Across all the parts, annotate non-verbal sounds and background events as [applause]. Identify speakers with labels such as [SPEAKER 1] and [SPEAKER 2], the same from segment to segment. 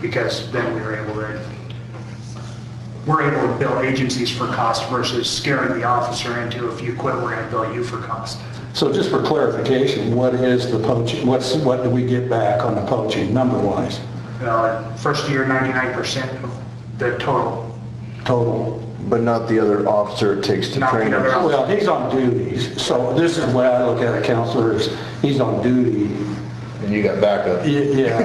[SPEAKER 1] because then we were able to, we're able to bill agencies for cost versus scaring the officer into, if you quit, we're gonna bill you for cost.
[SPEAKER 2] So just for clarification, what is the poaching, what's, what do we get back on the poaching number-wise,
[SPEAKER 1] Uh, First year, 99% of the total.
[SPEAKER 2] total?
[SPEAKER 3] But not the other officer it takes to
[SPEAKER 1] Not the
[SPEAKER 3] train
[SPEAKER 1] other
[SPEAKER 3] him.
[SPEAKER 1] officer.
[SPEAKER 2] Well, he's on duties, so this is the way I look at it, counselor, is he's on duty.
[SPEAKER 3] And you got backup.
[SPEAKER 2] Y- Yeah,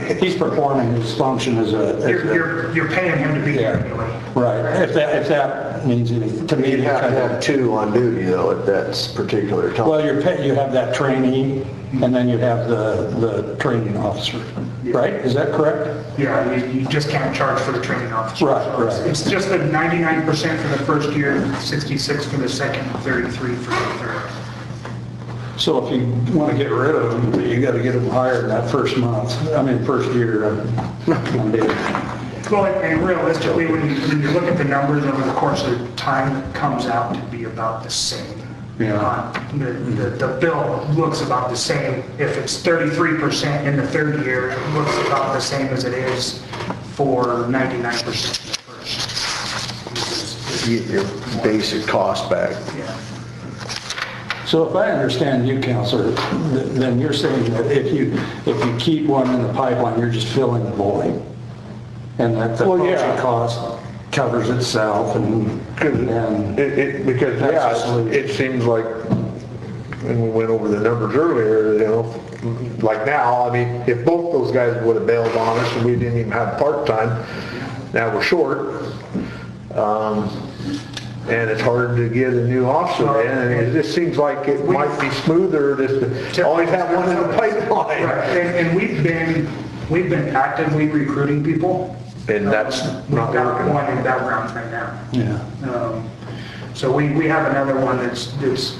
[SPEAKER 2] I mean, he's performing his function as a. as a-
[SPEAKER 1] You're, you're, you're paying him to be
[SPEAKER 2] Yeah,
[SPEAKER 1] there anyway.
[SPEAKER 2] right, if that, if that means anything, to me,
[SPEAKER 3] You'd
[SPEAKER 2] it
[SPEAKER 3] have to
[SPEAKER 2] kind of-
[SPEAKER 3] have two on duty though at that particular
[SPEAKER 2] Well,
[SPEAKER 3] time.
[SPEAKER 2] you're, pa- you have that trainee, and then you have the, the training officer, right? Is that correct?
[SPEAKER 1] Yeah, you, you just can't charge for the training officer.
[SPEAKER 2] Right,
[SPEAKER 1] So it's-
[SPEAKER 2] right.
[SPEAKER 1] It's just the 99% for the first year, 66 for the second, 33 for the third.
[SPEAKER 2] So if you want to get rid of them, you got to get them hired in that first month, I mean, first year. uh, I'm dead.
[SPEAKER 1] Well, and realistically, when you, when you look at the numbers over the course of time, it comes out to be about the same.
[SPEAKER 2] Yeah.
[SPEAKER 1] Uh, The, the the bill looks about the same. If it's 33% in the third year, it looks about the same as it is for 99% in the first.
[SPEAKER 3] You get your basic cost back.
[SPEAKER 1] Yeah.
[SPEAKER 2] So if I understand you, Counselor, th- then you're saying that if you, if you keep one in the pipeline, you're just filling the void? And that the
[SPEAKER 4] Well, yeah.
[SPEAKER 2] project cost covers itself and,
[SPEAKER 4] Because,
[SPEAKER 2] and,
[SPEAKER 4] it- it- because,
[SPEAKER 2] That's
[SPEAKER 4] yeah,
[SPEAKER 2] absolutely-
[SPEAKER 4] it seems like, and we went over the numbers earlier, you know, like now, I mean, if both those guys would have bailed on us and we didn't even have part-time, now we're short. um, And it's hard to get a new officer in, and it just seems like it might be smoother just to always have one in the
[SPEAKER 1] Right,
[SPEAKER 4] pipeline.
[SPEAKER 1] and, and we've been, we've been actively recruiting people.
[SPEAKER 4] And that's
[SPEAKER 1] Um,
[SPEAKER 4] not
[SPEAKER 1] We've got
[SPEAKER 4] working.
[SPEAKER 1] one in background right now.
[SPEAKER 2] yeah.
[SPEAKER 1] Um, So we, we have another one that's, that's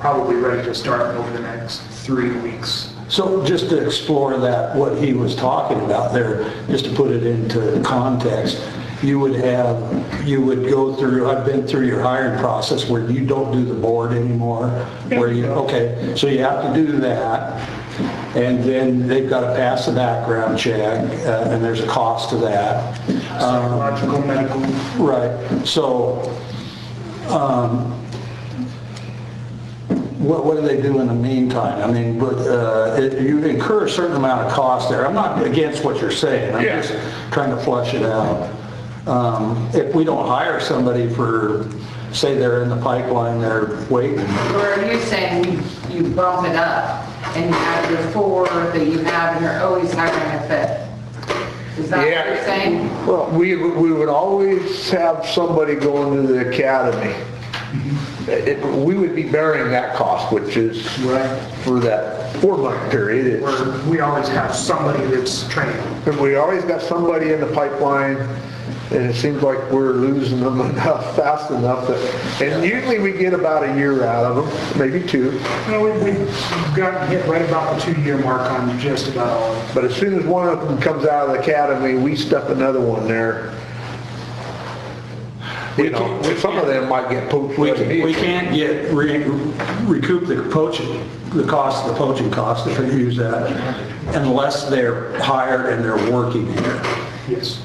[SPEAKER 1] probably ready to start over the next three weeks.
[SPEAKER 2] So just to explore that, what he was talking about there, just to put it into context, you would have, you would go through, I've been through your hiring process where you don't do the board anymore, where you, okay, so you have to do that, and then they've got to pass the background check, uh, and there's a cost to that. Um,
[SPEAKER 1] Psychological, medical,
[SPEAKER 2] Right, so, um, what, what do they do in the meantime? I mean, but, uh, it- you incur a certain amount of cost there. I'm not against what you're saying, I'm just trying to flush it out. Um, if we don't hire somebody for, say they're in the pipeline, they're waiting,
[SPEAKER 5] Or are you saying you you bump it up and you have your four that you have and you're always hiring a fifth? Is that what you're
[SPEAKER 4] Yeah.
[SPEAKER 5] saying?
[SPEAKER 4] Well, we, we would always have somebody going to the academy. It- We would be bearing that cost, which is for that four-month period. It's-
[SPEAKER 1] where we always have somebody that's training.
[SPEAKER 4] but We always got somebody in the pipeline, and it seems like we're losing them [laughs] enough, fast enough that, and usually we get about a year out of them, maybe two.
[SPEAKER 1] No, we, we've gotten hit right about the two-year mark on just about all of them.
[SPEAKER 4] But as soon as one of them comes out of the academy, we stuff another one there. You know, some of them might get poached.
[SPEAKER 2] We
[SPEAKER 4] like me.
[SPEAKER 2] we can't get, re- recoup the poaching, the cost, the poaching cost, if we use that, unless they're hired and they're working here.
[SPEAKER 1] Yes.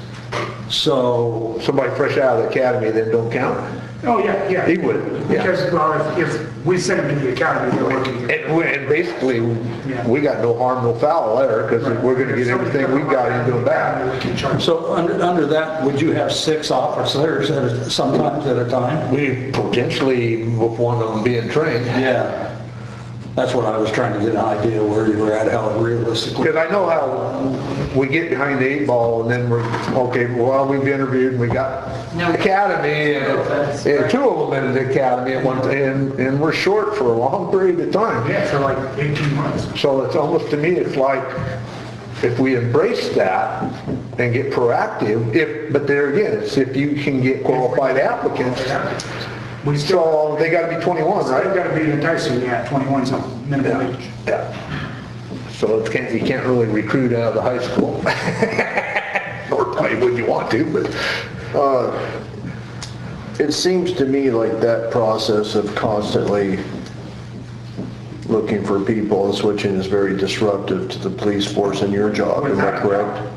[SPEAKER 2] So,
[SPEAKER 4] somebody fresh out of the academy then don't count.
[SPEAKER 1] Oh, yeah, yeah.
[SPEAKER 4] He would, yeah.
[SPEAKER 1] Because, well, if, if we send them to the academy, they're working here.
[SPEAKER 4] And, we- and basically, we got no harm, no foul there, because we're gonna get everything we got into a bag.
[SPEAKER 1] We can charge.
[SPEAKER 2] so under under that, would you have six officers at a- sometimes at a time?
[SPEAKER 4] We potentially, with one of them being trained,
[SPEAKER 2] Yeah. That's what I was trying to get an idea where you were at, how realistically.
[SPEAKER 4] because I know how we get behind the eight ball, and then we're, okay, well, we've interviewed, and we got
[SPEAKER 5] No.
[SPEAKER 4] academy, and, and two of them in the academy at one, and, and we're short for a long period of time.
[SPEAKER 1] Yeah, for like 18 months.
[SPEAKER 4] So it's almost, to me, it's like, if we embrace that and get proactive, if, but there again, it's if you can get qualified applicants.
[SPEAKER 1] We still,
[SPEAKER 4] So they gotta be 21,
[SPEAKER 1] I've
[SPEAKER 4] right?
[SPEAKER 1] got to be enticing, yeah, 21 is a minimum wage.
[SPEAKER 4] Yeah. So it's can't, you can't really recruit out of the high school.
[SPEAKER 3] [laughs]
[SPEAKER 4] Or play when you want to, but,
[SPEAKER 3] uh, It seems to me like that process of constantly looking for people and switching is very disruptive to the police force and your job, am I correct?